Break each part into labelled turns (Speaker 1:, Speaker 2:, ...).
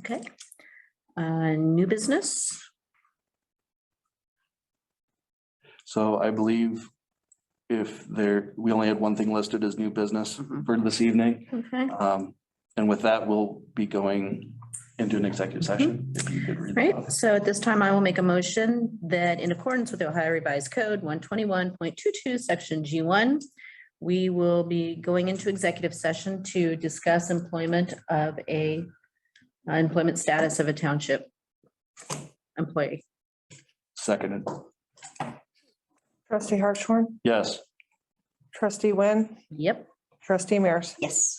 Speaker 1: Okay. Uh, New business?
Speaker 2: So I believe if there, we only had one thing listed as new business
Speaker 1: Mhm.
Speaker 2: for this evening.
Speaker 1: Okay,
Speaker 2: Um, and with that, we'll be going into an executive session. If you could read that
Speaker 1: great. So at this time, I will make a motion that in accordance with the Ohio Revised Code one twenty-one point two-two, section G one, we will be going into executive session to discuss employment of a uh, employment status of a township employee.
Speaker 2: Seconded,
Speaker 3: Trustee Hartshorn,
Speaker 2: yes.
Speaker 3: trustee Wynn,
Speaker 1: Yep.
Speaker 3: trustee Mears.
Speaker 1: Yes.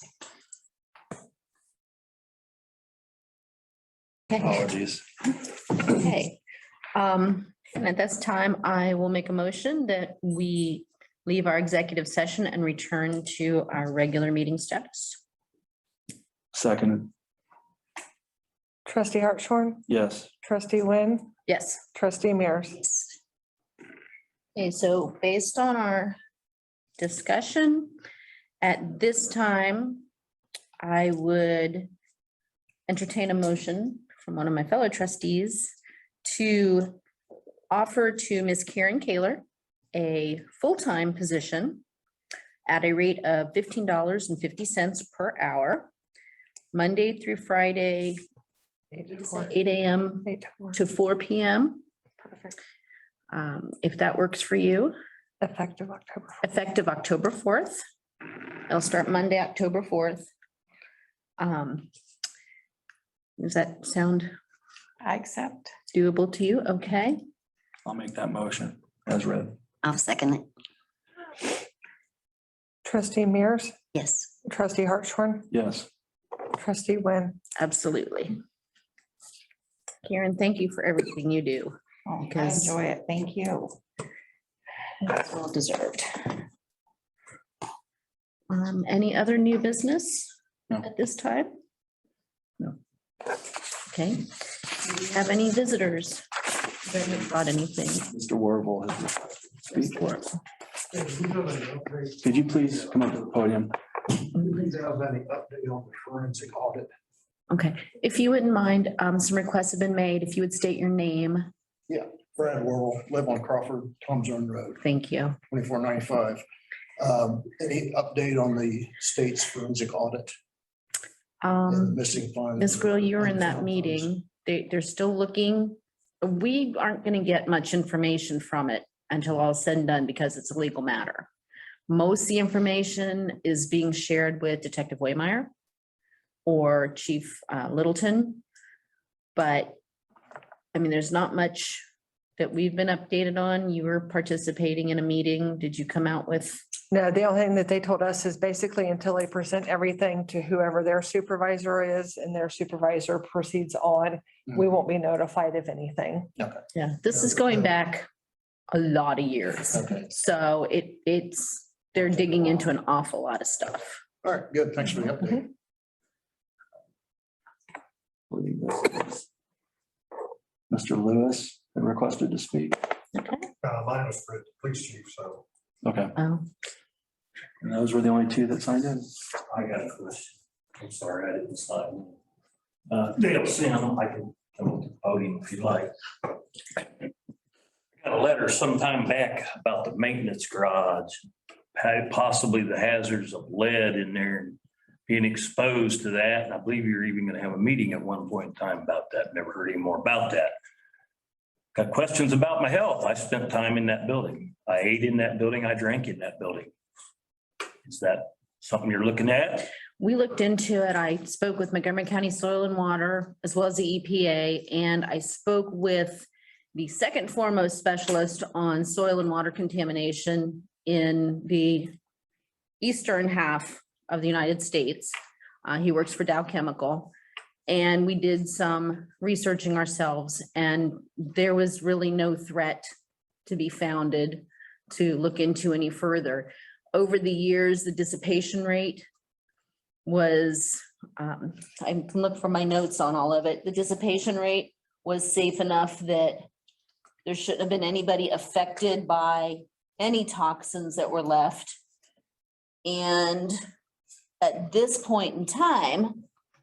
Speaker 2: Apologies.
Speaker 1: Okay, um, and at this time, I will make a motion that we leave our executive session and return to our regular meeting status.
Speaker 2: Seconded,
Speaker 3: Trustee Hartshorn,
Speaker 2: yes.
Speaker 3: trustee Wynn,
Speaker 1: Yes.
Speaker 3: trustee Mears.
Speaker 1: Okay, so based on our discussion, at this time, I would entertain a motion from one of my fellow trustees to offer to Ms. Karen Kaler a full-time position at a rate of fifteen dollars and fifty cents per hour, Monday through Friday, eight AM to four PM.
Speaker 3: Perfect.
Speaker 1: Um, if that works for you,
Speaker 3: Effective October.
Speaker 1: effective October fourth. It'll start Monday, October fourth. Um, does that sound
Speaker 4: I accept.
Speaker 1: doable to you? Okay.
Speaker 2: I'll make that motion as read.
Speaker 5: I'll second it.
Speaker 3: Trustee Mears,
Speaker 5: Yes.
Speaker 3: trustee Hartshorn,
Speaker 2: Yes.
Speaker 3: trustee Wynn.
Speaker 1: Absolutely. Karen, thank you for everything you do.
Speaker 4: Oh, I
Speaker 1: Because-
Speaker 4: enjoy it. Thank you.
Speaker 1: It's well deserved. Um, any other new business
Speaker 2: No.
Speaker 1: at this time?
Speaker 2: No.
Speaker 1: Okay. Do you Have any visitors? Anybody Brought anything?
Speaker 2: Mr. Warble has. the speech. Could you please come up to the podium?
Speaker 6: Please have any update on the forensic audit?
Speaker 1: Okay, if you wouldn't mind, um, some requests have been made. If you would state your name,
Speaker 6: Brad Worrell, live on Crawford, Tom's Run Road,
Speaker 1: thank you.
Speaker 6: twenty-four ninety-five. Um, Any update on the state's forensic audit and the
Speaker 1: Um,
Speaker 6: missing funds?
Speaker 1: Ms. Grill, you were in that meeting. They, they're still looking. We aren't gonna get much information from it until all is said and done because it's a legal matter. Most of the information is being shared with Detective Waymire or Chief uh, Littleton. But, I mean, there's not much that we've been updated on. You were participating in a meeting. Did you come out with?
Speaker 3: No, the only thing that they told us is basically until they present everything to whoever their supervisor is and their supervisor proceeds on, we won't be notified of anything.
Speaker 1: Yeah, this is going back a lot of years.
Speaker 6: Okay,
Speaker 1: So it, it's, they're digging into an awful lot of stuff.
Speaker 6: all right, good, thanks for the update.
Speaker 2: Mr. Lewis had requested to speak.
Speaker 6: Uh, Mine was for the police chief, so
Speaker 2: Okay,
Speaker 1: Oh,
Speaker 2: and those were the only two that signed in.
Speaker 7: I got a question. I'm sorry, I didn't sign. Uh, Dale Sim, I can come up to the podium if you like. Got a letter sometime back about the maintenance garage, had possibly the hazards of lead in there and being exposed to that. And I believe you're even gonna have a meeting at one point in time about that. Never heard any more about that. Got questions about my health. I spent time in that building. I ate in that building. I drank in that building. Is that something you're looking at?
Speaker 1: We looked into it. I spoke with Montgomery County Soil and Water as well as the EPA, and I spoke with the second foremost specialist on soil and water contamination in the eastern half of the United States. Uh, he works for Dow Chemical. And we did some researching ourselves, and there was really no threat to be founded to look into any further. Over the years, the dissipation rate was, um, I can look for my notes on all of it. The dissipation rate was safe enough that there shouldn't have been anybody affected by any toxins that were left. And at this point in time,